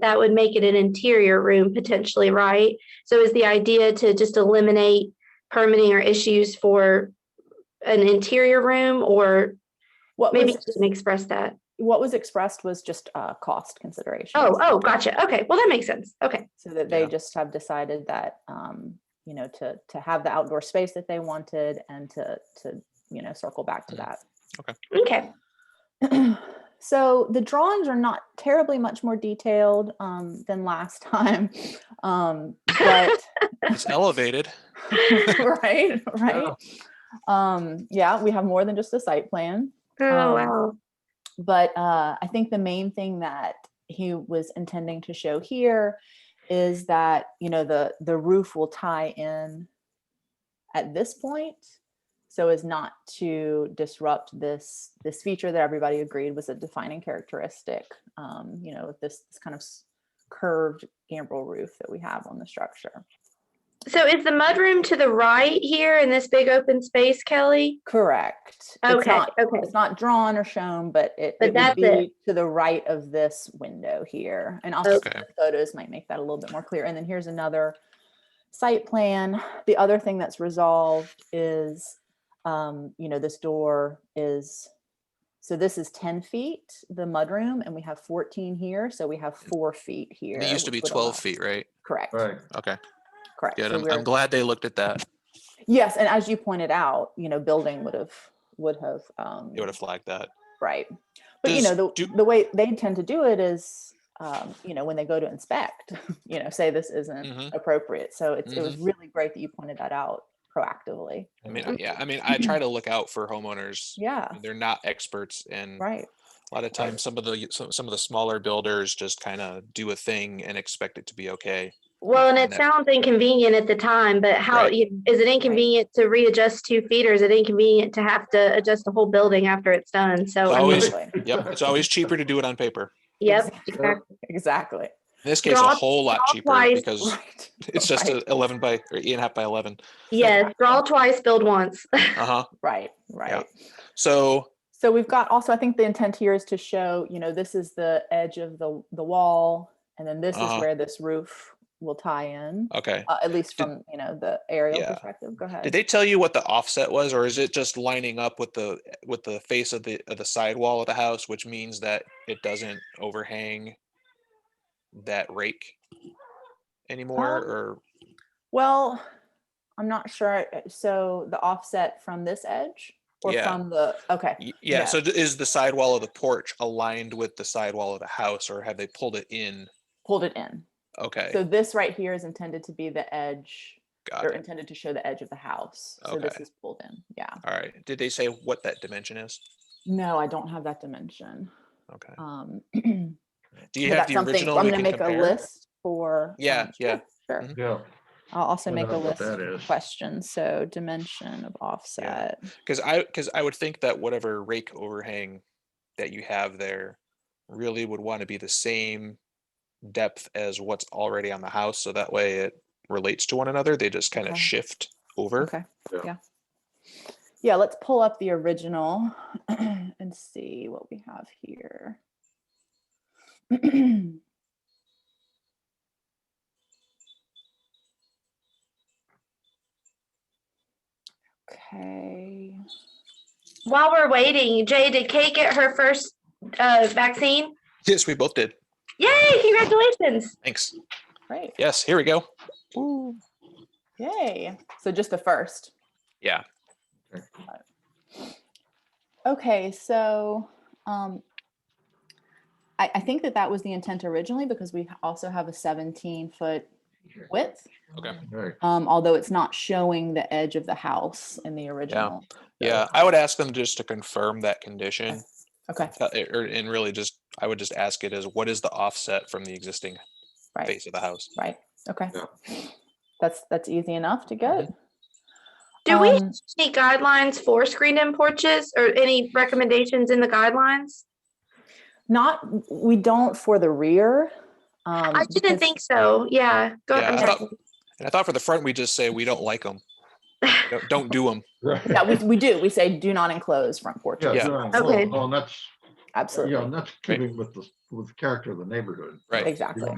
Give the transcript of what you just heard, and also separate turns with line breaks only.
that would make it an interior room potentially, right? So is the idea to just eliminate permitting or issues for an interior room or
What
maybe
was,
you didn't express that?
what was expressed was just uh, cost considerations.
Oh, oh, gotcha. Okay, well, that makes sense. Okay,
So that they
Yeah.
just have decided that, um, you know, to, to have the outdoor space that they wanted and to, to, you know, circle back to
Mhm.
that.
okay.
so the drawings are not terribly much more detailed um, than last time um, but
It's elevated.
right right
Yeah.
um, yeah we have more than just a site plan
Oh,
Um,
wow.
but uh, I think the main thing that he was intending to show here is that you know the the roof will tie in at this point so as not to disrupt this this feature that everybody agreed was a defining characteristic um, you know with this, this kind of s- curved gambrel roof that we have on the structure
So is the mudroom to the right here in this big open space, Kelly?
correct it's
Okay,
not
okay.
it's not drawn or shown, but it,
But
it
that's
would be
it.
to the right of this window here. And also
Okay.
the photos might make that a little bit more clear. And then here's another site plan. The other thing that's resolved is, um, you know, this door is, so this is 10 feet, the mudroom, and we have 14 here. So we have four feet here.
And It used to be
which would allow-
twelve feet, right?
Correct.
Right.
Okay,
Correct.
good.
So
I'm,
we're-
I'm glad they looked at that.
yes. And as you pointed out, you know, building would have, would have, um,
They would have flagged that.
Right. But you know,
Does-
the,
do-
the way they tend to do it is, um, you know, when they go to inspect, you know, say this isn't
Mhm.
appropriate. So it's, it was
Mm-hmm.
really great that you pointed that out proactively.
I mean, I- yeah, I mean, I try to look out for homeowners.
Um, Yeah.
They're not experts and
Right.
a lot of times some of the, some, some of the smaller builders just kind of do a thing and expect it to be okay.
Well, and
on
it
that.
sounds inconvenient at the time, but how,
Right.
you- is it inconvenient to readjust two feet or is it inconvenient to have to adjust the whole building after it's done? So, I
Oh,
mean,
Always-
Exactly.
Yep, it's always cheaper to do it on paper.
yep.
Sure.
Exactly.
In this case, a
Draw-
whole lot
draw
cheaper
twice.
because
Right.
it's just
Right.
a eleven by, or eight and a half by eleven.
Yes, draw twice, build once.
Uh-huh.
Right. Right.
So,
So we've got also, I think the intent here is to show, you know, this is the edge of the, the wall. And then this
Uh-huh.
is where this roof will tie in,
okay.
uh, at least
Did-
from, you know, the aerial
Yeah.
perspective. Go ahead.
Did they tell you what the offset was, or is it just lining up with the, with the face of the, of the sidewall of the house, which means that it doesn't overhang that rake anymore,
Um,
or,
Well, I'm not sure. uh, So the offset from this edge or
Yeah.
from the, okay.
y-
yeah.
yeah, so d- is the sidewall of the porch aligned with the sidewall of the house, or have they pulled it in?
Hold it in.
Okay,
So this right here is intended to be the edge
got
or
it,
intended to show the edge of the house. So this
Okay.
is pulled in. Yeah.
all right. Did they say what that dimension is?
No, I don't have that dimension.
Okay.
Um,
Do you
but
have
that's
the
something-
original?
I'm
we
gonna
can
make a
compare?
list for.
Yeah,
um,
yeah.
sure, Sure.
Mhm.
Yeah.
I'll also
Wonder
make a
how much
list
that
of
is.
questions. So dimension of offset.
Because I because I would think that whatever rake overhang that you have there really would want to be the same depth as what's already on the house, so that way it relates to one another. They just kind of
Okay.
shift over.
Okay,
Yeah.
yeah. Yeah, let's pull up the original and see what we have here. Okay,
While we're waiting, Jay, did Kate get her first uh, vaccine?
Yes, we both did.
Yay, congratulations.
Thanks.
great,
Yes, here we go.
yay. So just the first.
Yeah.
Okay, so um, I, I think that that was the intent originally because we also have a 17 foot width.
Okay.
Right.
um, although it's not showing the edge of the house in the original. Oh.
Yeah, I would ask them just to confirm that condition.
Okay,
uh, Or and really just I would just ask it as what is the offset from the existing
right,
face of the house?
right, okay.
Yeah.
That's, that's easy enough to get.
Mm-hmm.
Do we
Um,
any guidelines for screened-in porches or any recommendations in the guidelines?
Not, we don't for the rear. um,
I didn't
because-
think so. Yeah. Go
Yeah,
I'm
I
sorry.
thought, and I thought for the front we just say we don't like them. Don't, don't do them.
Right.
Yeah, we, we do, we say do not enclose front porches.
Yeah.
Yeah.
no, no,
Okay.
No, and that's,
absolutely.
Yeah, and that's keeping with the, with the character of the neighborhood.
Right.
You
Exactly.
don't